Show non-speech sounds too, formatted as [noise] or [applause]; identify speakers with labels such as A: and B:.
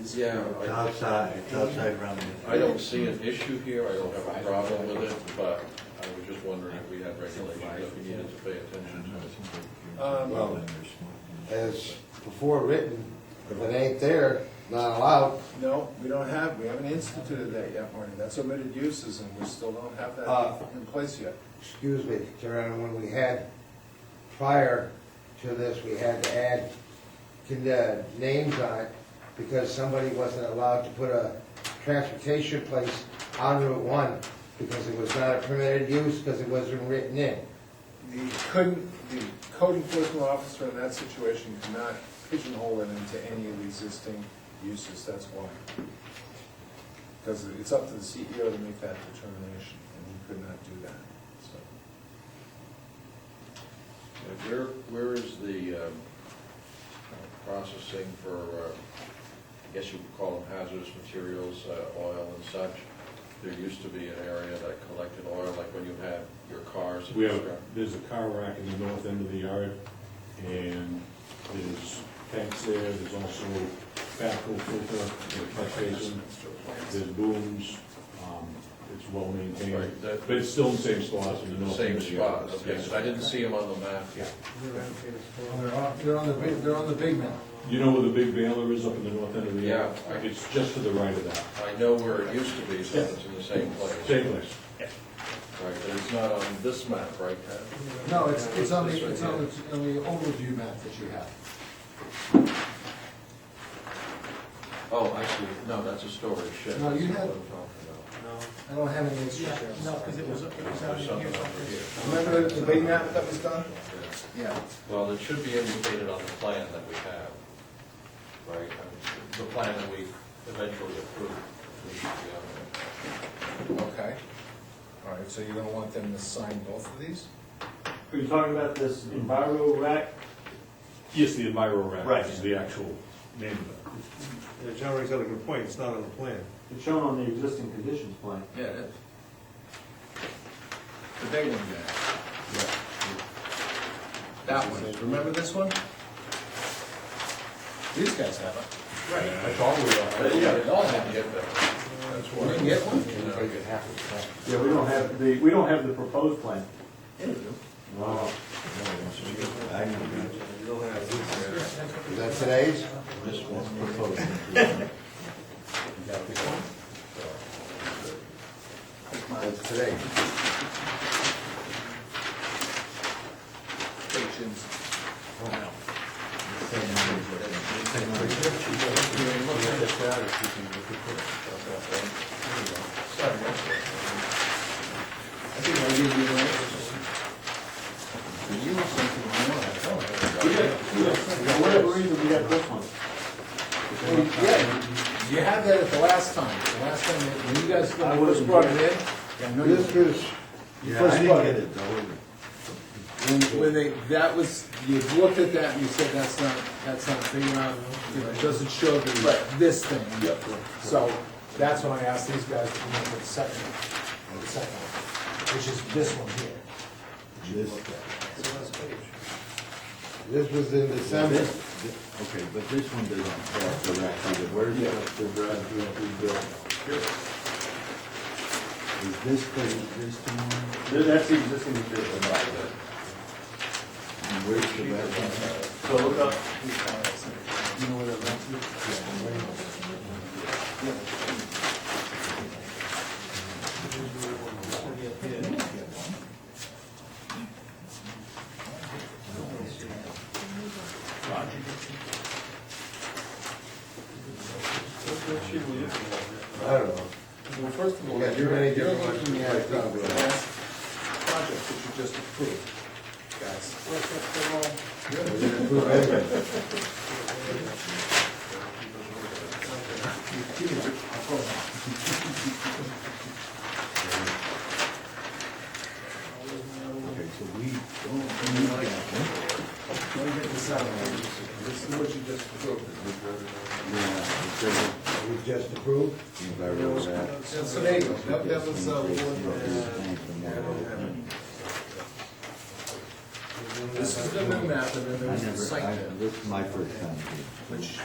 A: is.
B: Yeah,
C: It's
B: I,
C: outside, it's outside Romney.
B: I don't see an issue here, I don't have a problem with it, but I was just wondering if we had regulations that we needed to pay attention
A: Um,
D: Well, as before written, if it ain't there, not allowed.
A: No, we don't have, we haven't instituted that yet, Marty. That's omitted uses and we still don't have
D: Uh,
A: that in place yet.
D: Excuse me, Karen, when we had, prior to this, we had to add con- uh, names on it because somebody wasn't allowed to put a transportation place on Route One because it was not a permitted use, because it wasn't written in.
A: The, couldn't, the code enforcement officer in that situation could not pigeonhole it into any of the existing uses, that's why. Because it's up to the CEO to make that determination, and he could not do that, so.
B: to. Where, where is the um, uh, processing for, uh, I guess you could call them hazardous materials, uh, oil and such? There used to be an area that collected oil, like when you had your cars. and
E: We have,
B: stuff.
E: there's a car rack in the north end of the yard, and there's tanks there, there's also backhoe filter, and a catch basin, there's booms, um, it's well maintained,
B: Right, that-
E: but it's still in the same spots in the north end
B: Same
E: of the yard.
B: spot, okay, so I didn't see them on the map.
E: Yeah.
F: They're on, they're on the, big- they're on the big map.
E: You know where the big baler is up in the north end of the yard?
B: Yeah.
E: It's just to the right of that,
B: I know where it used to be, so it's in the same place.
E: same place.
B: Right, but it's not on this map, right, Pat?
F: No, it's, it's on the, it's on the, on the overview map that you have.
B: Oh, actually, no, that's a storage shed.
F: No, you
B: That's
F: had-
B: what I'm talking
F: I don't have any extra there.
G: No, because it was, it was out
B: about. There's
G: in here.
B: something over here.
A: Remember the big map that was done?
B: Yeah.
A: Yeah.
B: Well, it should be indicated on the plan that we have, right? I mean, The plan that we eventually approved. it should be
A: Okay. All right, so you're gonna want them to sign both of these?
H: Are you talking about this enviro rack?
E: Yes, the Enviro rack
H: Right.
E: is the actual name of it.
C: Yeah, John Ray's got a good point, it's not on the plan.
H: It's shown on the existing conditions plan.
B: on there. Yeah, it is.
A: The big one there. That one, remember this one? These guys have it.
E: I thought we
B: But yeah, it all had to get there. That's
A: You
B: why.
A: didn't get one?
H: Yeah, we don't have the, we don't have the proposed plan. Wow.
D: Is that today's?
B: This one's
F: [laughs]
B: proposed.
D: That's today.
A: Stations. I think I gave you one. You have something on one, I don't.
H: We got- we got- For whatever reason, we got this one.
A: Well, Yeah, you had that at the last time, the last time, that- when you guys
H: I
A: first
H: wasn't
A: brought it
H: here.
A: in. Yeah, I know you-
D: This is,
C: Yeah, I didn't get it though.
A: When, when they, that was, you looked at that and you said, that's not, that's not big enough, you know, it doesn't show the, this thing. So, that's when I asked these guys to come up with a second, the second, one, which is this one here.
C: This,
D: this was in December.
C: this, okay, but this one doesn't have the rack either, where's the, the rack that we built? Is this thing, this one,
H: Th- That's the existing condition.
C: and where's the rack?
H: So look up,
A: You know where that runs to?
D: I don't know.
A: Well, first of all,
D: Yeah,
A: you're
D: you're ready to
A: you're
D: do what
A: looking
D: you
A: at
D: like,
A: the
D: probably.
A: last project that you just approved, guys.
D: We didn't approve anything.
C: Okay, so we
A: Let me get this out of here. This is what you just approved.
D: We just approved.
C: enviro rack.
A: And so there you go, that, that was, uh, one, uh, this is the new map, and then
C: I
A: there was the
C: never,
A: site
C: I,
A: map,
C: this is my first time here.
A: which